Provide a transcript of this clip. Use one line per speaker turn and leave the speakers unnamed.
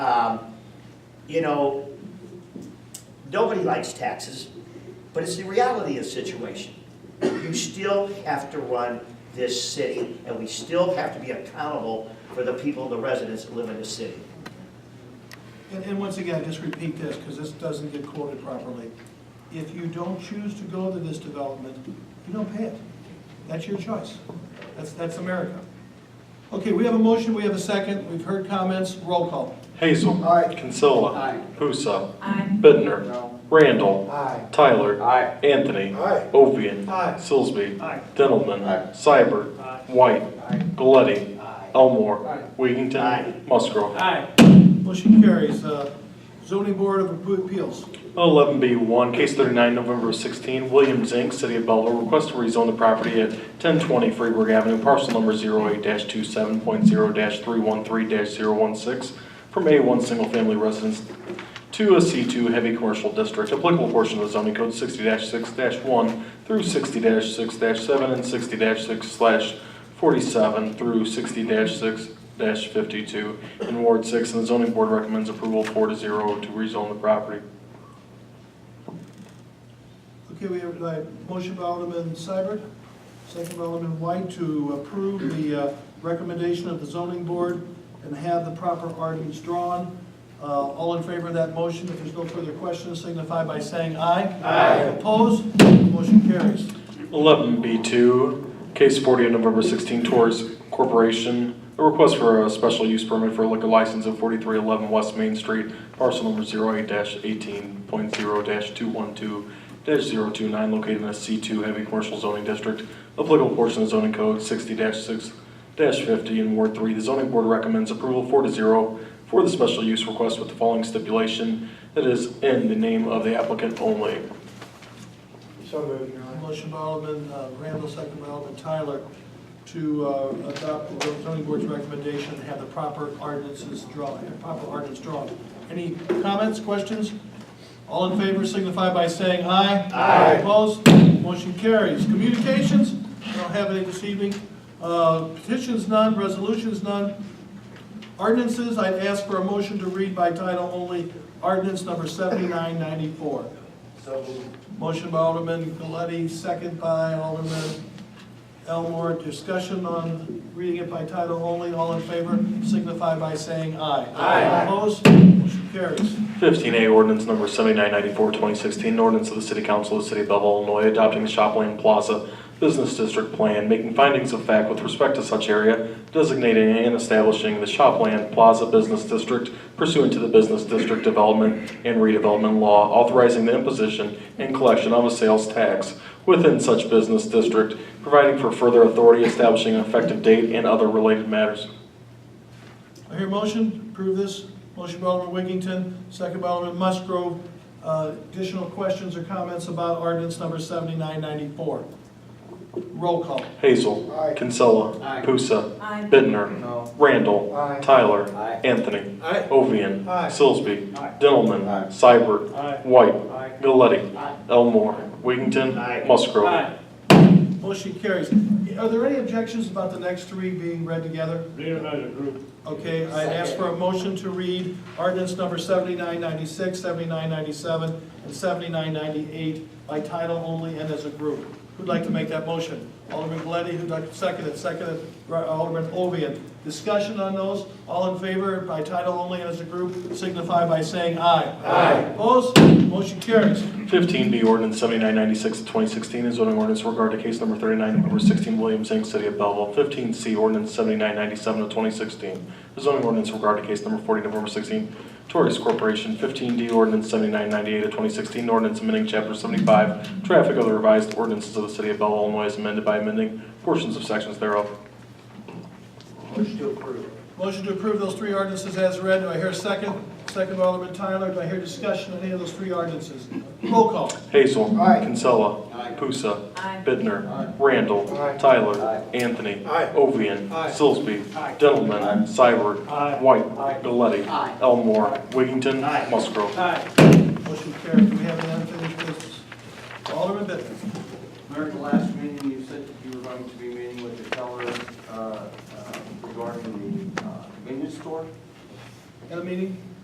Um, you know, nobody likes taxes, but it's the reality of the situation. You still have to run this city, and we still have to be accountable for the people, the residents that live in the city.
And, and once again, just repeat this, because this doesn't get quoted properly. If you don't choose to go to this development, you don't pay it. That's your choice. That's, that's America. Okay, we have a motion, we have a second, we've heard comments, roll call.
Hazel.
Aye.
Kinsella.
Aye.
Pusa.
Aye.
Bittner.
No.
Randall.
Aye.
Tyler.
Aye.
Anthony.
Aye.
Ovian.
Aye.
Silsby.
Aye.
Dillman.
Aye.
Seibert. White.
Aye.
Galletti.
Aye.
Elmore.
Aye.
Wiggington.
Aye.
Musgrove.
Motion carries. Uh, Zoning Board of Appeals.
11B1, Case 39, November 16, William Zink, City of Belleville, request to rezone the property at 1020 Freeburg Avenue, parcel number 08-27.0-313-016, from A1 Single Family Residence to a C2 Heavy Commercial District, applicable portion of the zoning code 60-6-1 through 60-6-7 and 60-6/47 through 60-6 52 in Ward 6, and the zoning board recommends approval 4 to 0 to rezone the property.
Okay, we have a motion by Alderman Seibert, second by Alderman White to approve the uh, recommendation of the zoning board and have the proper ordinance drawn. Uh, All in favor of that motion, if there's no further questions, signify by saying aye. Aye. Opposed? Motion carries.
11B2, case 40 of November 16, Torres Corporation, a request for a special use permit for a liquor license at 4311 West Main Street, parcel number 08-18.0-212-029, located in a C2 Heavy Commercial Zoning District, applicable portion of zoning code 60-6-50 in Ward 3. The zoning board recommends approval 4 to 0 for the special use request with the following stipulation, that is in the name of the applicant only.
So moved, Your Honor.
Uh, Motion by Alderman uh, Randall, second by Alderman Tyler to uh, adopt the zoning board's recommendation and have the proper ordinances drawn, the proper ordinance drawn. Any comments, questions? All in favor signify by saying aye.
Aye.
Opposed? Motion carries. Communications, I don't have any this evening. Uh, Petitions none, resolutions none. Ordinances, I'd ask for a motion to read by title only, ordinance number 7994. Motion by Alderman Galetti, second by Alderman Elmore. Discussion on reading it by title only. All in favor signify by saying aye. Aye. Opposed? Motion carries.
15A ordinance number 7994, 2016, an ordinance of the City Council of the City of Belleville, Illinois, adopting the Shopland Plaza Business District Plan, making findings of fact with respect to such area, designating and establishing the Shopland Plaza Business District pursuant to the Business District Development and Redevelopment Law, authorizing the imposition and collection of a sales tax within such business district, providing for further authority, establishing an effective date, and other related matters.
I hear a motion, approve this. Motion by Alderman Wiggington, second by Alderman Musgrove. Uh, Additional questions or comments about ordinance number 7994? Roll call.
Hazel.
Aye.
Kinsella.
Aye.
Pusa.
Aye.
Bittner.
No.
Randall.
Aye.
Tyler.
Aye.
Anthony.
Aye.
Ovian.
Aye.
Silsby.
Aye.
Dillman.
Aye.
Seibert.
Aye.
White.
Aye.
Galletti.
Aye.
Elmore. Wiggington.
Aye.
Musgrove.
Motion carries. Are there any objections about the next three being read together? Okay, I ask for a motion to read ordinance number 7996, 7997, and 7998 by title only and as a group. Who'd like to make that motion? Alderman Galetti, who'd like to second it? Second it, Ra- Alderman Ovian. Discussion on those, all in favor by title only and as a group, signify by saying aye. Aye. Opposed? Motion carries.
15B ordinance 7996 of 2016 is zoning ordinance regarding case number 39, number 16, Williams Inc., City of Belleville. 15C ordinance 7997 of 2016 is zoning ordinance regarding case number 40, November 16, Torres Corporation. 15D ordinance 7998 of 2016, ordinance amending chapter 75, traffic of the revised ordinances of the City of Belleville, Illinois, as amended by amending portions of sections thereof.
Motion to approve.
Motion to approve those three ordinances as read. Do I hear a second? Second by Alderman Tyler. Do I hear discussion on any of those three ordinances? Roll call.
Hazel.
Aye.
Kinsella.
Aye.
Pusa.
Aye.
Bittner.
Aye.
Randall.
Aye.
Tyler.
Aye.
Anthony.
Aye.
Ovian.
Aye.
Silsby.
Aye.
Dillman.
Aye.
Seibert.
Aye.
White.
Aye.
Galletti.
Aye.
Elmore. Wiggington.
Aye.
Musgrove.
Motion carried. Do we have any unfinished business? Alderman Bittner.
Mayor, at the last meeting, you said that you were going to be meeting with the teller uh, uh, regarding the uh, convenience store.
At a meeting?